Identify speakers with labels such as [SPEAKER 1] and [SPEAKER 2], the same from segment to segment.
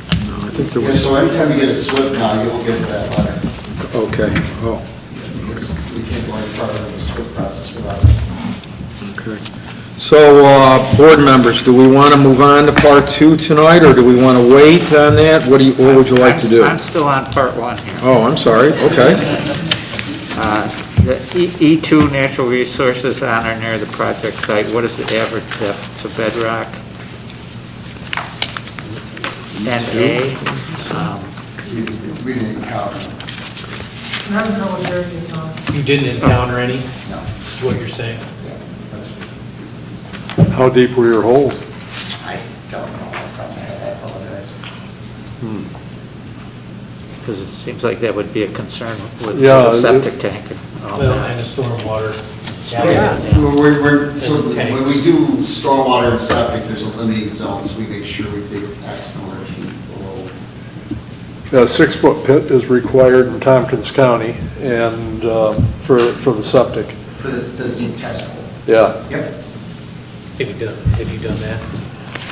[SPEAKER 1] think there
[SPEAKER 2] Yeah,
[SPEAKER 1] was,
[SPEAKER 2] so anytime you get a SWIP now, you'll get that letter.
[SPEAKER 1] okay, oh,
[SPEAKER 2] Because we can't go any further in the SWIP process without it.
[SPEAKER 1] okay. So, uh, board members, do we want to move on to part two tonight, or do we want to wait on that? What do you, what would you like to do?
[SPEAKER 3] I'm still on part one here.
[SPEAKER 1] Oh, I'm sorry, okay.
[SPEAKER 3] Uh, The E- E2 natural resources on or near the project site, what is the average depth to bedrock? NA, um,
[SPEAKER 2] We we didn't count,
[SPEAKER 4] And I don't know what they're doing on.
[SPEAKER 5] You didn't encounter any,
[SPEAKER 2] no.
[SPEAKER 5] is what you're saying?
[SPEAKER 2] Yeah, that's-
[SPEAKER 6] How deep were your holes?
[SPEAKER 2] I don't know, that's something I apologize.
[SPEAKER 3] because it seems like that would be a concern with with
[SPEAKER 6] Yeah,
[SPEAKER 3] a
[SPEAKER 6] it-
[SPEAKER 3] septic tank and all
[SPEAKER 5] Well,
[SPEAKER 3] that.
[SPEAKER 5] and the stormwater.
[SPEAKER 3] Oh. Yeah.
[SPEAKER 2] We're- We're, we're, so
[SPEAKER 5] And
[SPEAKER 2] when
[SPEAKER 5] tanks.
[SPEAKER 2] we do stormwater and septic, there's a limiting zone, so we make sure we dig X number of feet below.
[SPEAKER 6] A six-foot pit is required in Tompkins County and uh, for, for the septic,
[SPEAKER 2] For the, the deep test hole.
[SPEAKER 6] yeah.
[SPEAKER 2] Yep.
[SPEAKER 5] Have you done, have you done that?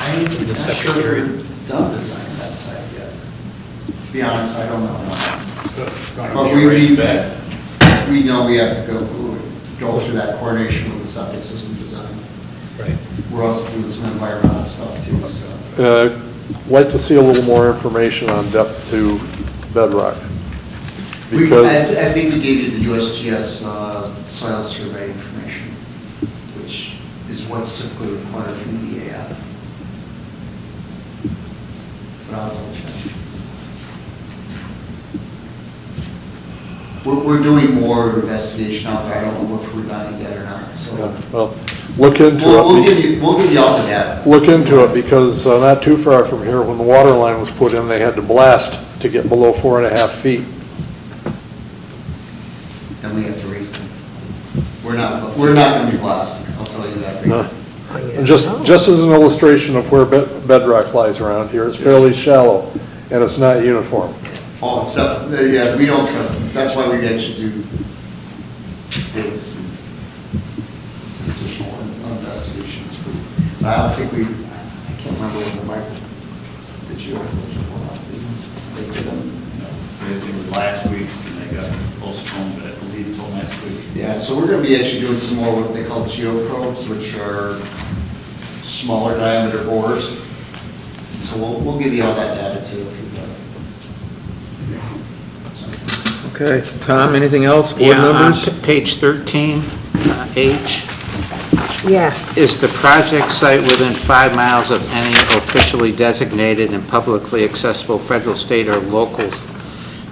[SPEAKER 2] I'm
[SPEAKER 5] The
[SPEAKER 2] not
[SPEAKER 5] septic
[SPEAKER 2] sure
[SPEAKER 5] area.
[SPEAKER 2] we've done designing that site yet. To be honest, I don't know. But Oh, we, we, we know we have to go, go through that coordination with the septic system design.
[SPEAKER 5] Right.
[SPEAKER 2] We're also doing some environmental stuff too, so.
[SPEAKER 6] Uh, Like to see a little more information on depth to bedrock.
[SPEAKER 2] We,
[SPEAKER 6] Because.
[SPEAKER 2] I, I think we gave you the USGS uh, soil survey information, which is what's typically required from the E EAF. But I'll double check. We're, we're doing more investigation out there, I don't know if we're done it yet or not, so.
[SPEAKER 6] Well, Look into it.
[SPEAKER 2] We'll, we'll
[SPEAKER 6] be-
[SPEAKER 2] give you, we'll give you all of that.
[SPEAKER 6] Look into it, because uh, not too far from here, when the water line was put in, they had to blast to get below four and a half feet.
[SPEAKER 2] And we have to raise them. We're not, we're not gonna be blasting, I'll tell you that. right
[SPEAKER 6] No.
[SPEAKER 2] now.
[SPEAKER 6] And
[SPEAKER 5] Oh.
[SPEAKER 6] Just, just as an illustration of where bed- bedrock lies around here, it's fairly shallow, and it's not uniform.
[SPEAKER 2] Oh, except, uh, yeah, we don't trust, them. that's why we actually do things, additional investigations. But I don't think we, I can't remember when the micro, the geopolitical one, up, they they did them.
[SPEAKER 7] I think it was last week, and they got postponed, but I believe until next week.
[SPEAKER 2] Yeah, so we're gonna be actually doing some more what they call geoprobes, which are smaller diameter bores. So we'll, we'll give you all that data too. if you'd like. So.
[SPEAKER 1] Okay, Tom, anything else, board
[SPEAKER 3] Yeah, on
[SPEAKER 1] members?
[SPEAKER 3] p- page 13, uh, H,
[SPEAKER 8] Yeah,
[SPEAKER 3] is the project site within five miles of any officially designated and publicly accessible federal, state, or local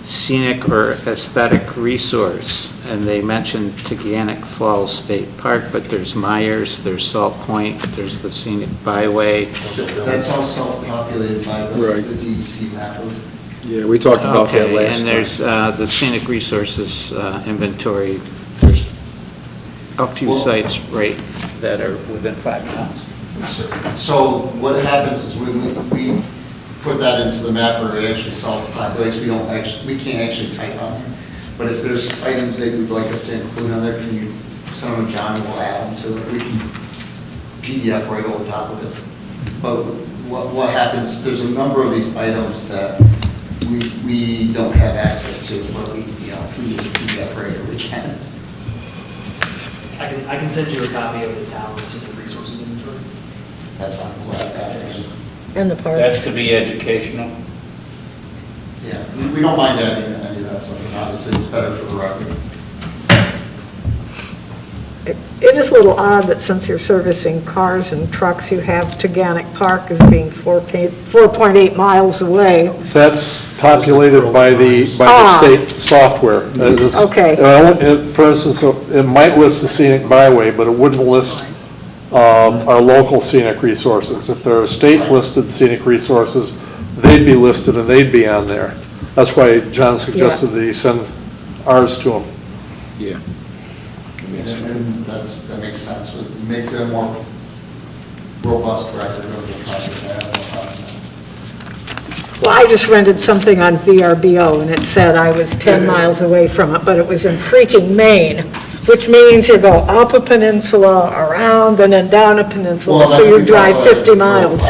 [SPEAKER 3] scenic or aesthetic resource? And they mentioned Teganic Falls State Park, but there's Myers, there's Salt Point, there's the scenic byway.
[SPEAKER 2] That's all self-populated by the
[SPEAKER 1] Right.
[SPEAKER 2] the DEC map.
[SPEAKER 1] Yeah, we talked about that last time.
[SPEAKER 3] Okay, and there's uh, the scenic resources uh, inventory, there's a few
[SPEAKER 2] Well-
[SPEAKER 3] sites, right, that are within five miles.
[SPEAKER 2] So what happens is when we, we put that into the map or it actually self-populates, we don't actually, we can't actually type on there. But if there's items that you'd like us to include on there, can you, some of John will add them so that we can PDF right on top of it. But what, what happens, there's a number of these items that we, we don't have access to, but we, you know, if we use PDF right, we can.
[SPEAKER 9] I can, I can send you a copy of the town's senior resources inventory.
[SPEAKER 2] That's why I'm glad that is.
[SPEAKER 8] and the park.
[SPEAKER 7] That's to be educational.
[SPEAKER 2] Yeah, we- we don't mind adding any of that stuff, but obviously it's better for the record.
[SPEAKER 8] It is a little odd that since you're servicing cars and trucks, you have Teganic Park as being 4.8 4.8 miles away.
[SPEAKER 6] That's populated by the, by
[SPEAKER 8] Ah.
[SPEAKER 6] the state software. That is-
[SPEAKER 8] Okay.
[SPEAKER 6] and I won't- it- For instance, uh, it might list the scenic byway, but it wouldn't list um, our local scenic resources. If there are state-listed scenic resources, they'd be listed and they'd be on there. That's why John suggested that you send ours to them.
[SPEAKER 2] And and that's, that makes sense, it makes it a more robust record of the project. I have no problem with that.
[SPEAKER 8] Well, I just rented something on VRBO, and it said I was 10 miles away from it, but it was in freaking Maine, which means you go up a peninsula, around, and then down a peninsula,
[SPEAKER 2] Well,
[SPEAKER 8] so
[SPEAKER 2] that-
[SPEAKER 8] you
[SPEAKER 2] it's
[SPEAKER 8] drive
[SPEAKER 2] also a-
[SPEAKER 8] 50 miles.